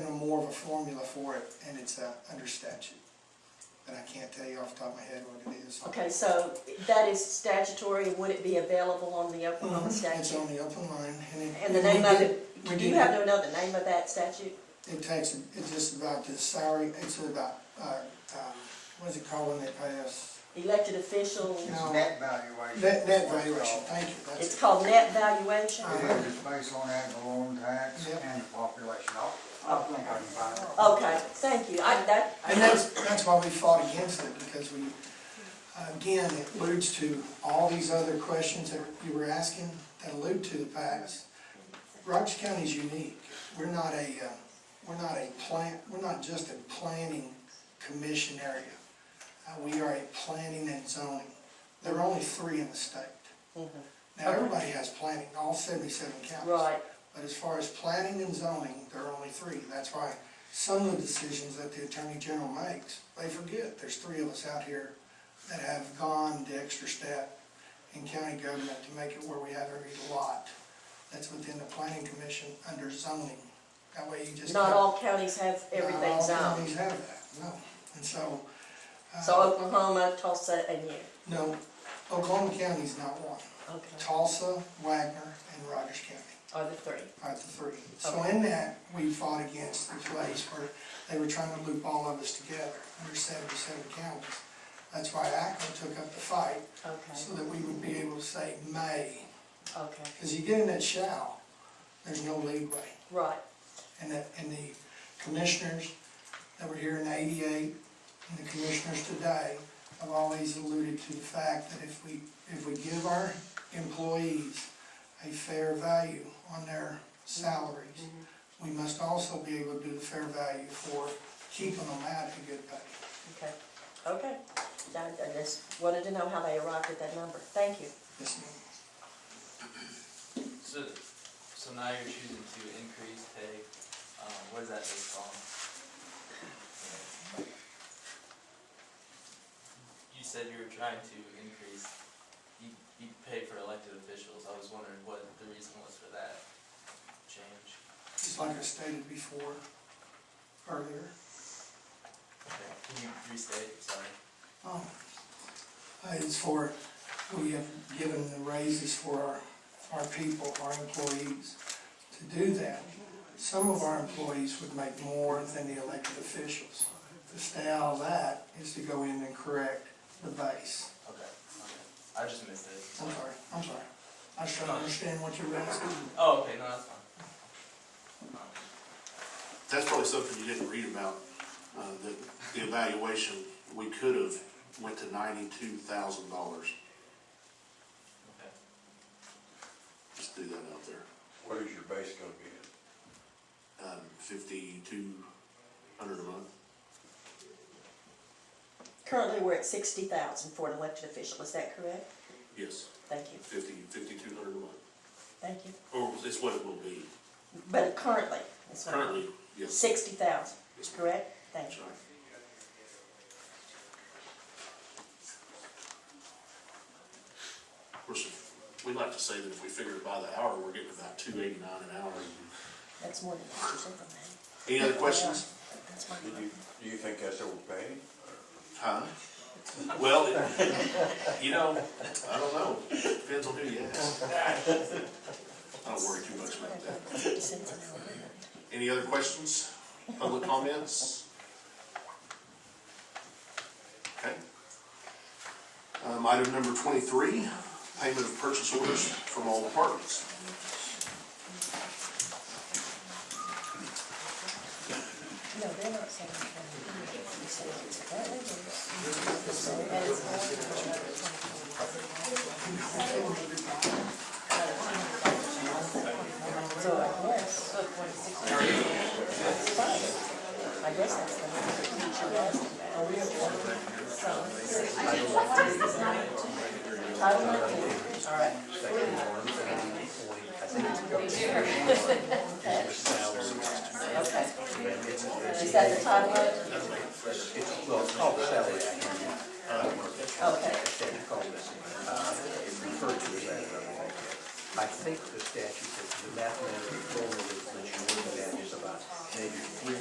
of a formula for it, and it's uh, under statute. And I can't tell you off the top of my head what it is. Okay, so that is statutory, would it be available on the Oklahoma Mm-hmm. It's statute? on the open line, and it. And the name of it, We do you did, have to know the name of that statute? it takes, it's just about the salary, it's about, uh, um, what is it called when they pay us? Elected officials, No. Net valuation. Net, net valuation, thank you, it's that's it. called net valuation? It is based on ad valorem tax Yep. and the population. I'll, I'll think I can find it. Okay, thank you, I, that, And that's, that's why we fought against it, because we, again, it alludes to all these other questions that you were asking that allude to the past. Rogers County's unique. We're not a, uh, we're not a plant, we're not just a planning commission area. Uh, We are a planning and zoning. There are only three in the state. Mm-hmm. Now, everybody has planning, all seventy-seven counties. right, But as far as planning and zoning, there are only three. That's why some of the decisions that the Attorney General makes, they forget, there's three of us out here that have gone the extra step in county government to make it where we have every lot that's within the planning commission under zoning. That way you just. not all counties have Not all everything zoned, counties have that, no. And so. uh, so Oklahoma, Tulsa, and you, No, Oklahoma County's not one. okay, Tulsa, Wagner, and Rogers County. are the three. Part three. So in that, we fought against the place where they were trying to loop all of us together under seventy-seven counties. That's why ACO took up the fight, so Okay, that we would be able to say may. okay, Because you get in that shall, there's no leeway. right, And the, and the commissioners that were here in eighty-eight, and the commissioners today, have always alluded to the fact that if we, if we give our employees a fair value on their salaries, we must also be able to do the fair value for keeping them out of good pay. okay, okay. I I just wanted to know how they arrived at that number, thank you. Yes, ma'am. So, so now you're choosing to increase pay, um, what is that based on? You said you were trying to increase, you, you pay for elected officials, I was wondering what the reason was for that change. Just like I stated before, earlier. Okay, Can you restate, sorry? Um, uh, It's for, we have given the raises for our, our people, our employees to do that. Some of our employees would make more than the elected officials. To stay out of that is to go in and correct the base. Okay, okay, I just missed it. I'm sorry, I'm sorry. I just don't understand what you're asking. Oh, okay, no, that's Um, fine. That's probably something you didn't read about, uh, the, the evaluation, we could have went to ninety-two thousand dollars. Okay. Just do that out there. What is your base gonna be at? Um, fifty-two hundred a month. Currently, we're at sixty thousand for an elected official, is that correct? Yes, Thank you, fifty, fifty-two hundred a month. thank you. Or it's what it will be But currently, it's currently, yes. sixty thousand, Yes, ma'am. correct? Thank That's you. right. Of course, if- we'd like to say that if we figure it by the hour, we're getting about two eighty-nine an hour. That's more than what you said from me. Any other questions? That's my Do you, do you think that's overpaying? Huh? Well, it- you know, I don't know, depends on who you ask. I don't worry too much about that. Fifty cents an hour. Any other questions, public comments? Okay. Um, item number twenty-three, payment of purchase orders from all departments. No, they're not saying twenty. So I guess. Fine. I guess that's the one. Are we Title nineteen, all right. Okay. Is that the title of it? Well, it's called salary. Okay, It's called, uh, it's referred to as that. I think the statute, the mathematical formula that you look at is about maybe three